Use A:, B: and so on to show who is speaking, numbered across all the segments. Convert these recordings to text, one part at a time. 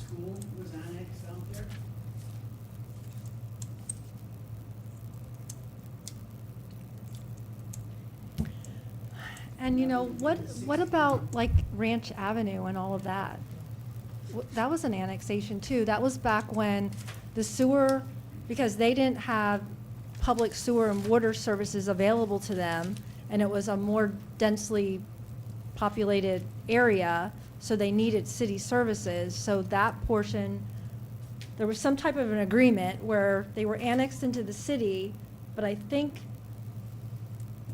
A: school was annexed out there.
B: And you know, what, what about like Ranch Avenue and all of that? Wh- That was an annexation too. That was back when the sewer, because they didn't have public sewer and water services available to them, and it was a more densely populated area, so they needed city services. So that portion, there was some type of an agreement where they were annexed into the city, but I think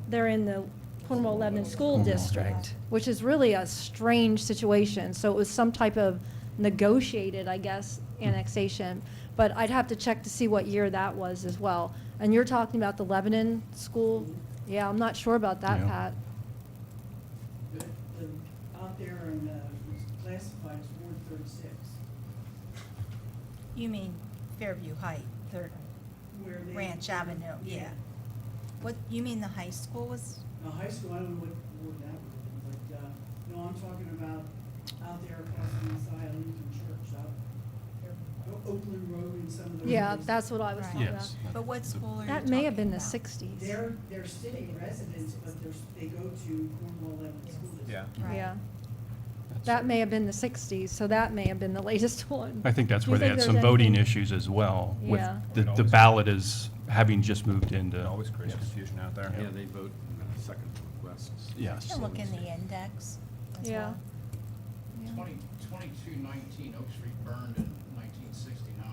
B: they're in the Cornwall Lebanon School District, which is really a strange situation. So it was some type of negotiated, I guess, annexation. But I'd have to check to see what year that was as well. And you're talking about the Lebanon School? Yeah, I'm not sure about that,
C: Yeah.
B: Pat.
A: The, the, out there in the classified is Ward thirty-six,
D: You mean Fairview Height, Third
A: where they.
D: Ranch Avenue, yeah. What, you mean the high school was,
A: Now, high school, I don't know what ward that would be, but, uh, no, I'm talking about out there across the Messiah Lutheran Church, out there, O- Oakland Road and some of those.
B: Yeah, that's what I was
D: Right.
B: talking about.
C: Yes.
D: but what school are you talking about?
B: That may have been the 60s.
A: They're, they're city residents, but they're, they go to Cornwall Lebanon School District.
E: Yeah.
D: Right.
B: Yeah, that may have been the 60s, so that may have been the latest one.
C: I think that's
B: Do
C: where
B: you
C: they
B: think
C: had some
B: there's
C: voting
B: anything-
C: issues as well, with
B: Yeah.
C: the, the ballot is having just moved into.
E: It always creates confusion out there.
C: Yeah,
F: they vote in the second request.
C: Yes.
D: You can look in the index as
B: Yeah.
D: well.
B: Yeah.
G: 20 2219 Oak Street burned in 1969.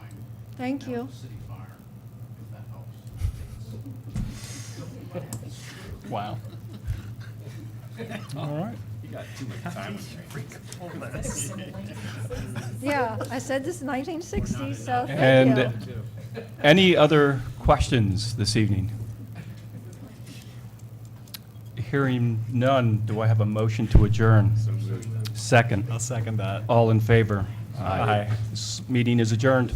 B: Thank
G: That
B: you.
G: was a city fire, if that helps.
C: Wow. All right.
F: You got too much time on your hands.
B: Yeah, I said this is 1960s, so thank you.
C: And any other questions this evening? Hearing none, do I have a motion to adjourn? Second. I'll second that. All in favor? Aye. This Meeting is adjourned.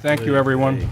C: Thank you, everyone.